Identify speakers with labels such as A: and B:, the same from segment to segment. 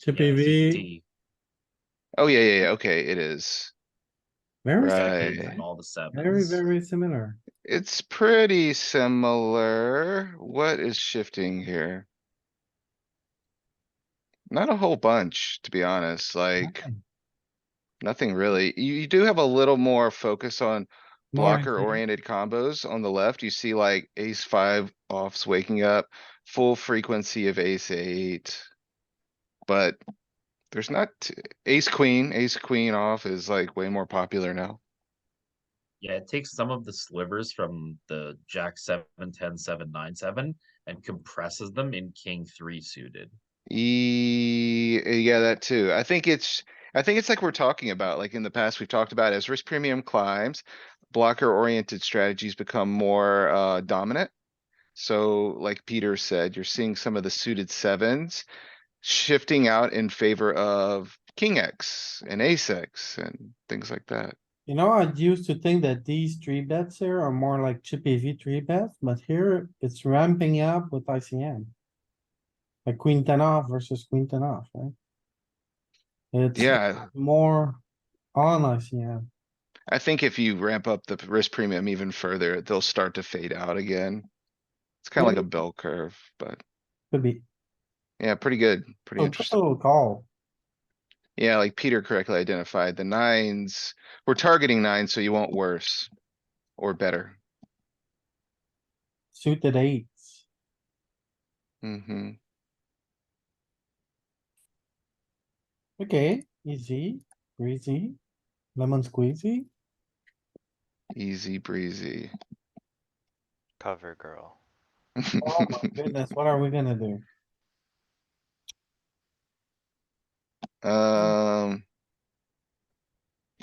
A: Chippy
B: Yeah, it's
A: V,
B: D.
C: Oh, yeah, yeah, yeah, okay, it is.
A: very,
C: Right.
A: sim-
B: Exactly,
C: Right.
B: and all the sevens.
A: very, very similar.
C: It's pretty similar. What is shifting here? Not a whole bunch, to be honest, like,
A: Nothing.
C: nothing really. You, you do have a little more focus on
A: More
C: blocker
A: into-
C: oriented combos on the left. You see like ace five offs waking up, full frequency of ace eight. But there's not t- ace queen, ace queen off is like way more popular now.
B: Yeah, it takes some of the slivers from the jack seven, ten, seven, nine, seven, and compresses them in king three suited.
C: Ye- eh, yeah, that too. I think it's, I think it's like we're talking about, like in the past, we've talked about as risk premium climbs, blocker oriented strategies become more uh dominant. So like Peter said, you're seeing some of the suited sevens shifting out in favor of king X and ace X and things like that.
A: You know, I used to think that these three bets here are more like Chippy V three bets, but here it's ramping up with ICM. Like queen ten off versus queen ten off, right? It's
C: Yeah,
A: more on ICM.
C: I think if you ramp up the risk premium even further, they'll start to fade out again. It's kind of like a bell curve, but
A: Could be,
C: yeah, pretty good,
A: so just
C: pretty
A: a
C: interesting.
A: little call.
C: Yeah, like Peter correctly identified, the nines, we're targeting nines, so you want worse or better.
A: Suited eights.
C: hmm
A: Okay, easy, breezy, lemon squeezy.
C: easy breezy.
D: Cover girl.
A: Oh my goodness, what are we gonna do?
C: Um.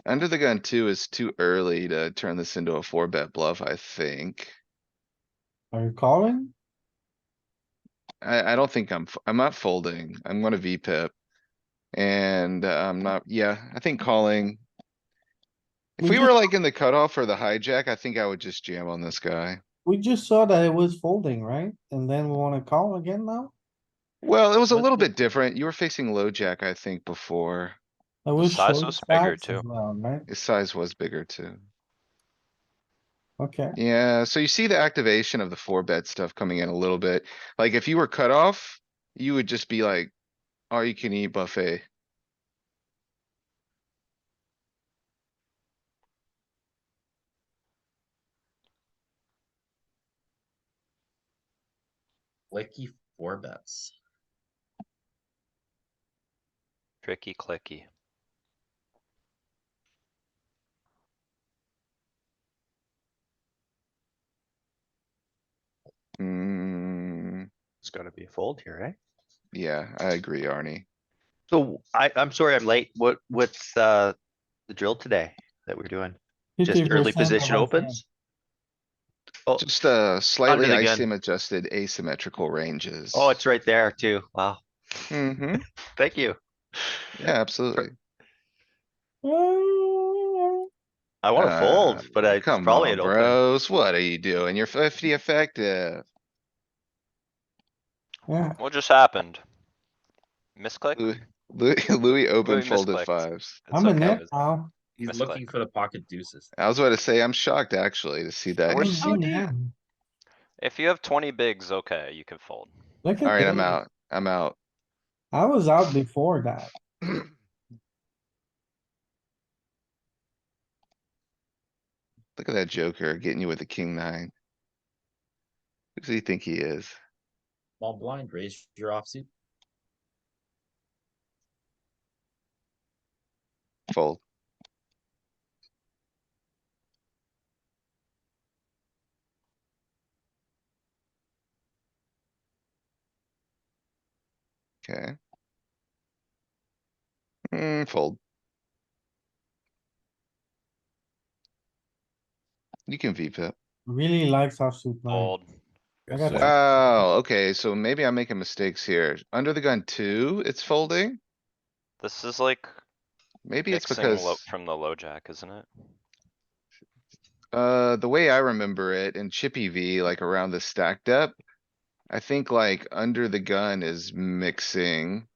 C: Under the gun two is too early to turn this into a four bet bluff, I think.
A: Are you calling?
C: I, I don't think I'm, f- I'm not folding. I'm gonna V pip. And I'm not, yeah, I think calling. If
A: We
C: we
A: just-
C: were like in the cutoff or the hijack, I think I would just jam on this guy.
A: We just saw that it was folding, right? And then we wanna call again now?
C: Well, it was a
B: But
C: little
B: the-
C: bit different. You were facing low jack, I think, before.
A: I wish
D: size
A: those
D: was bigger
A: facts as
D: too.
A: well, Right,
C: His size was bigger too.
A: okay,
C: Yeah, so you see the activation of the four bet stuff coming in a little bit. Like if you were cut off, you would just be like, all you can eat buffet.
B: Flicky four bets.
D: Tricky clicky.
C: Hmm,
E: It's gonna be a fold here, eh? right?
C: yeah, I agree, Arnie.
E: So I, I'm sorry I'm late. What, what's, uh, the drill today that we're doing? Just
A: 50%
E: early
A: of
E: position
A: our
E: opens? Oh,
C: Just uh slightly
E: the gun.
C: ICM adjusted asymmetrical ranges.
E: oh, it's right there too. Wow.
C: hmm
E: Thank you.
C: yeah, absolutely.
A: friends.
E: I wanna
C: Uh,
E: fold, but I it's
C: Come
E: probably
C: on,
E: an open.
C: bros, what are you doing? You're fifty effective.
A: Yeah,
D: What just happened? Misclick?
C: Louis, Louis Louis open
D: Louis
C: folded
D: misclicked.
C: fives.
D: It's
A: I'm in
D: okay.
A: it now.
B: He's
D: Misclick.
B: looking for the pocket deuces.
C: I was about to say, I'm shocked actually to see that.
A: I'm
D: We're
A: in
D: so deep.
A: now.
D: If you have twenty bigs, okay, you can fold.
A: Look at
C: Alright, I'm
A: this.
C: out. I'm out.
A: I was out before that.
C: Look at that joker getting you with the king nine. Who does he think he is?
B: Small blind, raise your offsuit.
C: Fold. Okay. Hmm, fold. You can V pip.
A: Really likes offsuit nine.
D: Fold.
A: I got
F: Yeah.
A: that.
C: Wow, okay, so maybe I'm making mistakes here. Under the gun two, it's folding?
D: This is like
C: Maybe it's
D: mixing low
C: because,
D: from the low jack, isn't it?
C: uh, the way I remember it in Chippy V, like around the stacked up. I think like under the gun is mixing.